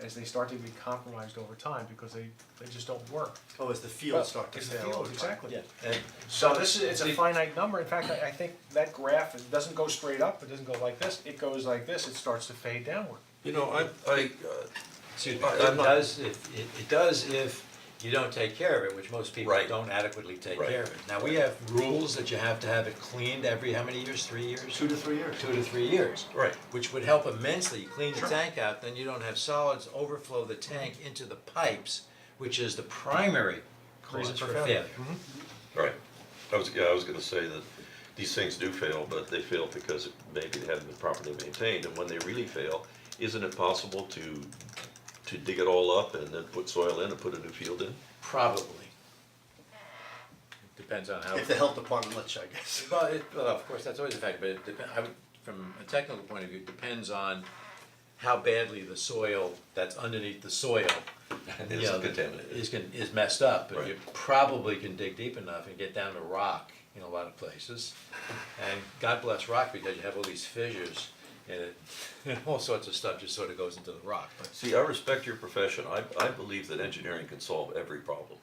as they start to be compromised over time because they, they just don't work. Oh, as the fields start to It's the fail all field, the time. exactly. Yeah, So this is, it's a finite number, in fact, I I think that graph, it doesn't go straight up, it doesn't go like this, it goes like this, it starts to fade downward. You know, I, I, uh, excuse me, I- it I'm not- does, if, it, it does if you don't take care of it, which most people Right. don't adequately take Right. care of it. Now, we have rules that you have to have it cleaned every, how many years, three years? Two to three years. Two to three years. Right. Which would help immensely, You clean the tank out, then you don't have solids overflow the tank into the pipes, which is the primary cause Reason for for failure. failure. right, I was, yeah, I was gonna say that these things do fail, but they fail because maybe they haven't been properly maintained, and when they really fail, isn't it possible to, to dig it all up and then put soil in and put a new field in? Probably. Depends on how. If the health department lets you, I guess. Well, it, well, of course, that's always a fact, but it dep- I would, from a technical point of view, it depends on how badly the soil that's underneath the soil, you Is know, contaminated. is con- is messed up, but you Right. probably can dig deep enough and get down to rock in a lot of places. And God bless rock because you have all these fissures and it, and all sorts of stuff just sort of goes into the rock, but See, I respect your profession, I, I believe that engineering can solve every problem.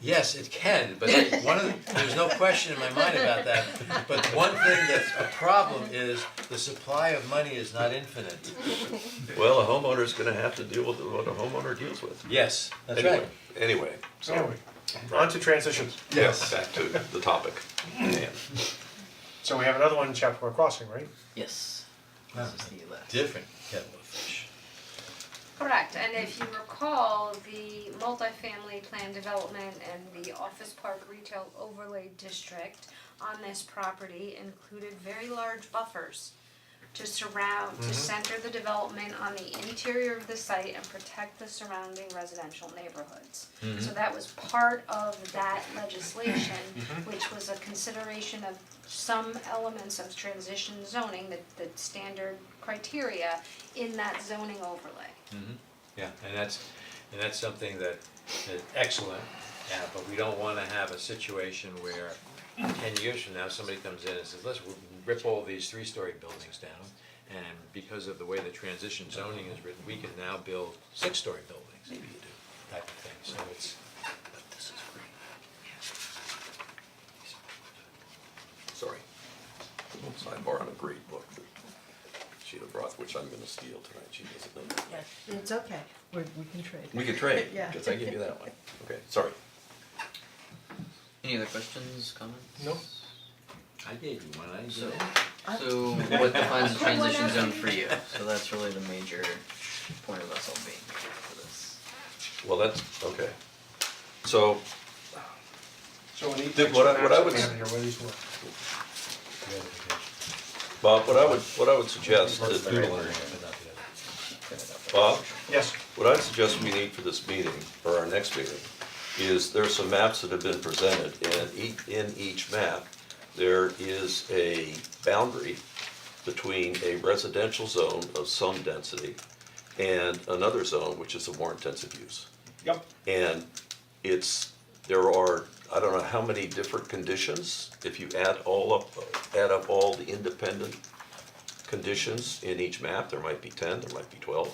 Yes, it can, but one of the, there's no question in my mind about that. But one thing that's a problem is the supply of money is not infinite. Well, a homeowner's gonna have to deal with what a homeowner deals with. Yes, that's Anyway, right. Anyway, so. Anyway, on to transitions. Yes. Back to the topic. Yeah. So we have another one in Chapua Crossing, right? Yes. This is the left. Different kettle of fish. Correct, and if you recall, the multifamily plan development and the office park retail overlay district on this property included very large buffers to surround, to center the development on the interior of the site and protect the surrounding residential neighborhoods. So that was part of that legislation, which was a consideration of some elements of transition zoning, the, the standard criteria in that zoning overlay. Mm-hmm. Yeah, and that's, and that's something that, that's excellent, yeah, but we don't wanna have a situation where ten years from now, somebody comes in and says, let's rip all these three-story buildings down. And because of the way the transition zoning is written, we can now build six-story buildings. Maybe you do. Type of thing, so it's, Sorry. Sidebar on a great book that Sheila brought, which I'm gonna steal tonight, she doesn't know. that. It's okay, we, we can trade. We could trade, Yeah. because I gave you that one. Okay, sorry. Any other questions, comments? No. I gave you one, I did. So, so what defines a transition zone for you? So that's really the major point of us all being here for this. Well, that's, okay. So, So in each Did- what I- what I section, would we s- have here, where these were. Bob, what I would, what I would suggest, uh, doodling, Bob, Yes, what I suggest we need for this meeting, or our next meeting, is there are some maps that have been presented, and each, in each map, there is a boundary between a residential zone of some density and another zone, which is a more intensive use. yep, And it's, there are, I don't know how many different conditions, if you add all up, add up all the independent conditions in each map, there might be ten, there might be twelve.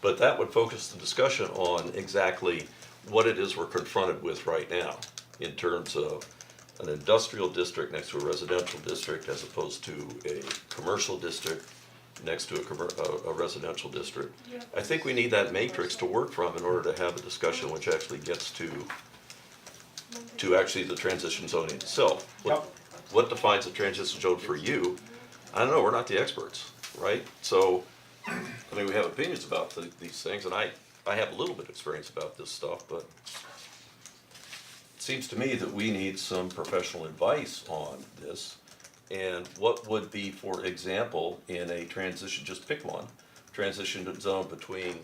But that would focus the discussion on exactly what it is we're confronted with right now in terms of an industrial district next to a residential district as opposed to a commercial district next to a commer- a, a residential district. I think we need that matrix to work from in order to have a discussion which actually gets to to actually the transition zoning itself. What, what defines a transition zone for you? I don't know, we're not the experts, right? So, I mean, we have opinions about the, these things, and I, I have a little bit of experience about this stuff, but it seems to me that we need some professional advice on this. And what would be, for example, in a transition, just pick one, transition zone between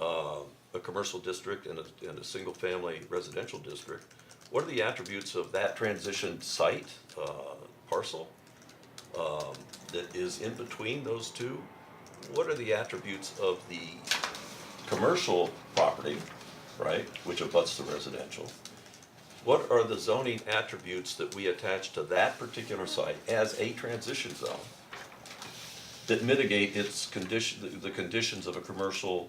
uh, a commercial district and a, and a single-family residential district, what are the attributes of that transition site, uh, parcel? um, that is in between those two, what are the attributes of the commercial property, right, which abuts the residential? What are the zoning attributes that we attach to that particular site as a transition zone? that mitigate its condition, the- the conditions of a commercial